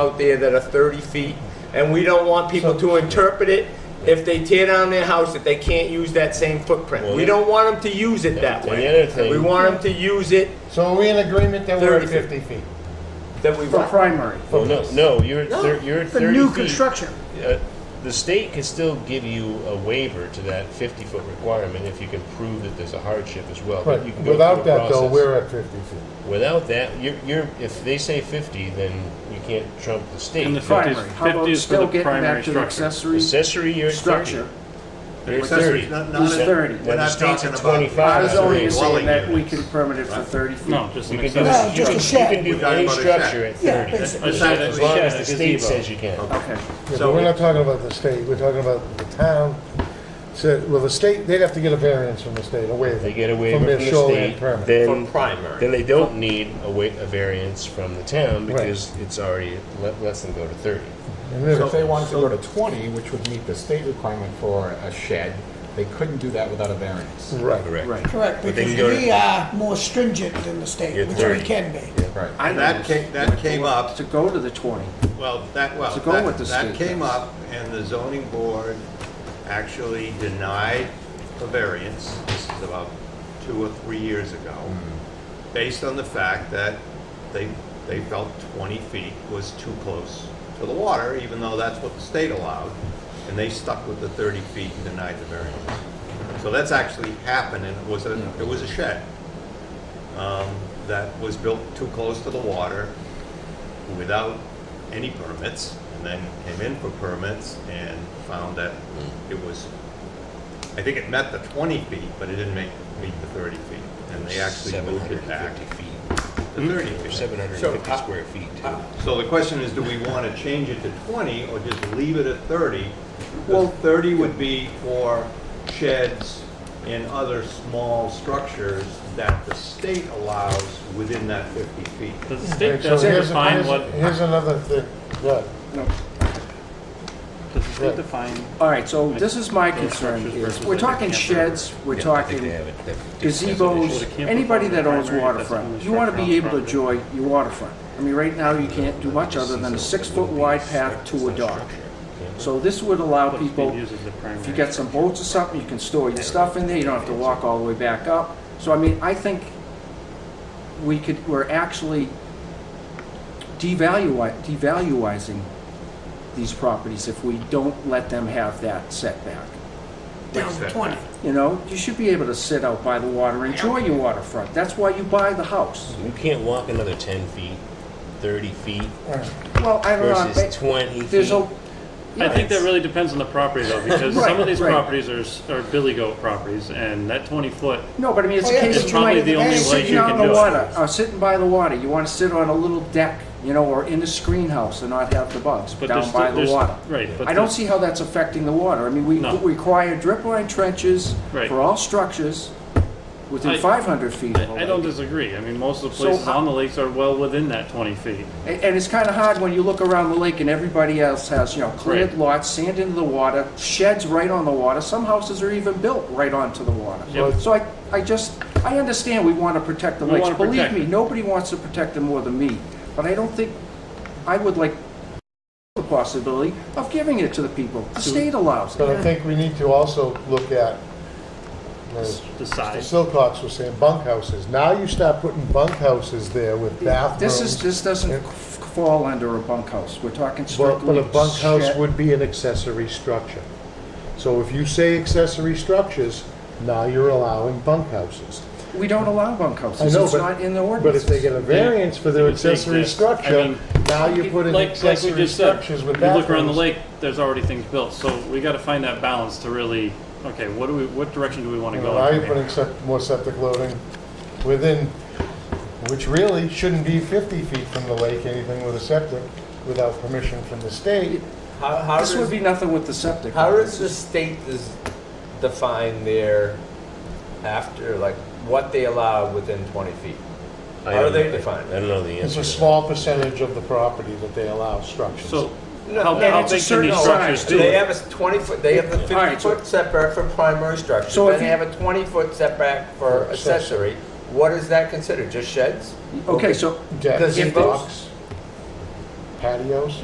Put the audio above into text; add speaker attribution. Speaker 1: out there that are 30 feet, and we don't want people to interpret it if they tear down their house, that they can't use that same footprint. We don't want them to use it that
Speaker 2: And
Speaker 1: way.
Speaker 2: the other thing-
Speaker 1: We want them to use it
Speaker 3: So are we in agreement that we're at
Speaker 1: 30
Speaker 3: 50 feet?
Speaker 1: that we
Speaker 4: For
Speaker 1: want.
Speaker 4: primary.
Speaker 2: Well, no, no, you're, at thir- you're at
Speaker 4: For
Speaker 2: 30 feet.
Speaker 4: new construction.
Speaker 2: Uh, The state can still give you a waiver to that 50-foot requirement if you can prove that there's a hardship as well. but you
Speaker 3: Right.
Speaker 2: can go through
Speaker 3: Without
Speaker 2: a
Speaker 3: that though,
Speaker 2: process.
Speaker 3: we're at 50 feet.
Speaker 2: Without that, you're, you're, if they say 50, then you can't trump the state.
Speaker 5: And the
Speaker 2: But
Speaker 5: Fifty is-
Speaker 4: Primary. How about
Speaker 5: fifty is for
Speaker 4: still
Speaker 5: the
Speaker 4: getting
Speaker 5: primary
Speaker 4: back to the
Speaker 5: structure.
Speaker 4: accessory
Speaker 2: Accessory, you're at 30.
Speaker 4: structure?
Speaker 2: You're at
Speaker 6: Accessory,
Speaker 2: 30.
Speaker 6: not-
Speaker 2: Then
Speaker 6: not
Speaker 2: the
Speaker 6: at-
Speaker 4: thirty.
Speaker 6: We're not
Speaker 2: state's
Speaker 6: talking
Speaker 2: at
Speaker 6: about.
Speaker 2: 25.
Speaker 4: I was
Speaker 2: That's
Speaker 4: only
Speaker 2: the
Speaker 4: saying
Speaker 6: dwelling
Speaker 4: that we
Speaker 6: units.
Speaker 4: can permit it for thirty feet.
Speaker 5: No, just
Speaker 2: You
Speaker 5: an
Speaker 2: can do,
Speaker 5: accessory.
Speaker 2: you can, you can do
Speaker 6: We're
Speaker 2: any
Speaker 6: talking about a
Speaker 2: structure at
Speaker 6: shack.
Speaker 2: 30.
Speaker 6: That's-
Speaker 5: I said
Speaker 6: that's-
Speaker 2: As long as
Speaker 5: Yeah,
Speaker 2: the
Speaker 5: a
Speaker 2: state
Speaker 5: gazebo.
Speaker 2: says you can.
Speaker 4: Okay.
Speaker 3: Yeah,
Speaker 6: So-
Speaker 3: but we're not talking about the state, we're talking about the town. So, well, the state, they'd have to get a variance from the state, a waiver.
Speaker 2: They get a waiver
Speaker 3: From their shoreline
Speaker 2: state,
Speaker 3: permit.
Speaker 1: From
Speaker 2: then,
Speaker 1: primary.
Speaker 2: then they don't need a wa, a variance from the town
Speaker 3: Right.
Speaker 2: because it's already, let, lets them go to 30.
Speaker 3: And then
Speaker 7: If they wanted to go to 20, which would meet the state requirement for a shed, they couldn't do that without a variance.
Speaker 3: Right.
Speaker 2: Correct.
Speaker 8: Correct,
Speaker 2: But they
Speaker 8: because
Speaker 2: can go to-
Speaker 8: we are more stringent than the
Speaker 2: You're
Speaker 8: state, which
Speaker 2: 30.
Speaker 8: we can be.
Speaker 7: Right.
Speaker 4: I know
Speaker 6: That
Speaker 4: this.
Speaker 6: came, that came up,
Speaker 4: To go to the twenty.
Speaker 6: well, that, well,
Speaker 4: To go
Speaker 6: that-
Speaker 4: with the state
Speaker 6: that came
Speaker 4: does.
Speaker 6: up, and the zoning board actually denied a variance, this is about two or three years ago,
Speaker 4: Mm-hmm.
Speaker 6: based on the fact that they, they felt 20 feet was too close to the water, even though that's what the state allowed, and they stuck with the 30 feet and denied the variance. So that's actually happened, and it was a, it was a shed um, that was built too close to the water, without any permits, and then came in for permits and found that it was, I think it met the 20 feet, but it didn't make, meet the 30 feet. And they actually moved it back
Speaker 2: 750 feet,
Speaker 6: to 30
Speaker 2: or
Speaker 6: feet.
Speaker 2: 750
Speaker 6: So, uh,
Speaker 2: square feet too.
Speaker 6: So the question is, do we want to change it to 20 or just leave it at 30?
Speaker 4: Well-
Speaker 6: Well, 30 would be for sheds and other small structures that the state allows within that 50 feet.
Speaker 5: The
Speaker 3: Right,
Speaker 5: state
Speaker 3: so
Speaker 5: doesn't
Speaker 3: here's-
Speaker 5: define
Speaker 3: here's-
Speaker 5: what,
Speaker 3: Here's another thing, yeah.
Speaker 4: No.
Speaker 5: does the state define?
Speaker 4: All right, so this is my concern is, we're talking sheds, we're talking gazebos, anybody that owns waterfront, you want to be able to enjoy your waterfront. I mean, right now, you can't do much other than a six-foot wide path to a dock. So this would allow people, if you get some boats or something, you can store your stuff in there, you don't have to walk all the way back up. So I mean, I think we could, we're actually devalui- devaluizing these properties if we don't let them have that setback.
Speaker 8: Down to
Speaker 6: that?
Speaker 8: twenty.
Speaker 4: You know, you should be able to sit out by the water, enjoy your waterfront. That's why you buy the house.
Speaker 2: You can't walk another 10 feet, 30 feet
Speaker 4: Well, I don't know.
Speaker 2: versus
Speaker 4: but
Speaker 2: 20 feet.
Speaker 4: There's a.
Speaker 5: I think that
Speaker 4: Yeah.
Speaker 5: really depends on the property though, because
Speaker 4: Right,
Speaker 5: some of these
Speaker 4: right.
Speaker 5: properties are, s- are billy goat properties and that twenty foot,
Speaker 4: No, but I mean, it's
Speaker 8: Oh, yeah,
Speaker 4: a case
Speaker 8: it's
Speaker 4: of
Speaker 5: probably
Speaker 4: you might
Speaker 5: the only
Speaker 4: be
Speaker 5: way
Speaker 4: sitting
Speaker 5: you
Speaker 4: out
Speaker 5: can
Speaker 4: on the
Speaker 5: do it.
Speaker 4: water, or sitting by the water. You want to sit on a little deck, you know, or in the screen house and not have the bugs
Speaker 5: but there's
Speaker 4: down
Speaker 5: still,
Speaker 4: by the
Speaker 5: there's,
Speaker 4: water.
Speaker 5: right, but.
Speaker 4: I don't
Speaker 5: there's-
Speaker 4: see how that's affecting the water. I mean, we
Speaker 5: No.
Speaker 4: require drip line trenches
Speaker 5: Right.
Speaker 4: for all structures
Speaker 5: I-
Speaker 4: within 500 feet of the
Speaker 5: I I don't
Speaker 4: lake.
Speaker 5: disagree, I mean, most of the
Speaker 4: So
Speaker 5: places
Speaker 4: I-
Speaker 5: on the lakes are well within that twenty feet.
Speaker 4: And and it's kind of hard when you look around the lake and everybody else has, you know, cleared
Speaker 5: Right.
Speaker 4: lots, sand into the water, sheds right on the water. Some houses are even built right onto the water.
Speaker 5: Yep.
Speaker 4: So I, I just, I understand we want to protect the
Speaker 5: We
Speaker 4: lakes.
Speaker 5: wanna
Speaker 4: Believe
Speaker 5: protect
Speaker 4: me,
Speaker 5: it.
Speaker 4: nobody wants to protect them more than me. But I don't think, I would like the possibility of giving it to the people. The state allows
Speaker 3: But
Speaker 4: it.
Speaker 3: I think we need to also look at, as
Speaker 5: The
Speaker 3: Mr.
Speaker 5: size,
Speaker 3: Silcox was saying, bunkhouses. Now you start putting bunkhouses there with bathrooms.
Speaker 4: This is, this doesn't
Speaker 3: Yeah.
Speaker 4: f- fall under a bunkhouse. We're talking
Speaker 3: Well,
Speaker 4: strictly.
Speaker 3: But a bunkhouse
Speaker 4: shed.
Speaker 3: would be an accessory structure. So if you say accessory structures, now you're allowing bunkhouses.
Speaker 4: We don't allow
Speaker 3: I
Speaker 4: bunkhouses.
Speaker 3: know,
Speaker 4: It's
Speaker 3: but.
Speaker 4: not in the
Speaker 3: But
Speaker 4: ordinance.
Speaker 3: if they get a variance for their
Speaker 5: You take
Speaker 3: accessory
Speaker 5: this. I
Speaker 3: structure,
Speaker 5: mean,
Speaker 3: now you put in
Speaker 5: like, like we
Speaker 3: accessory
Speaker 5: just said,
Speaker 3: structures
Speaker 5: you
Speaker 3: with
Speaker 5: look around the
Speaker 3: bathrooms.
Speaker 5: lake, there's already things built, so we gotta find that balance to really, okay, what do we, what direction do we wanna
Speaker 3: You
Speaker 5: go?
Speaker 3: know, Now
Speaker 5: in
Speaker 3: you're
Speaker 5: here?
Speaker 3: putting sep- more septic loading within, which really shouldn't be 50 feet from the lake, anything with a septic, without permission from the state.
Speaker 1: How, how
Speaker 4: This would
Speaker 1: does,
Speaker 4: be nothing with the septic.
Speaker 1: how does the state does define their after, like, what they allow within 20 feet?
Speaker 2: I
Speaker 1: How
Speaker 2: don't
Speaker 1: do they
Speaker 2: know.
Speaker 1: define it?
Speaker 2: I don't know the
Speaker 3: It's
Speaker 2: answer
Speaker 3: a
Speaker 2: to that.
Speaker 3: small percentage of the property that they allow structures.
Speaker 5: So,
Speaker 1: No,
Speaker 5: how,
Speaker 1: and
Speaker 5: how
Speaker 4: it's a
Speaker 5: big can
Speaker 4: certain
Speaker 5: these structures
Speaker 4: size,
Speaker 5: be?
Speaker 4: too.
Speaker 1: They have a 20 foot, they have the
Speaker 4: All right,
Speaker 1: 50
Speaker 4: so-
Speaker 1: foot setback for primary structure,
Speaker 4: So
Speaker 1: then
Speaker 4: if
Speaker 1: they
Speaker 4: you-
Speaker 1: have a 20 foot setback for
Speaker 3: For accessory.
Speaker 1: accessory. What is that considered, just sheds?
Speaker 4: Okay, so
Speaker 3: Decks,
Speaker 1: Gazebos?
Speaker 3: docks, patios.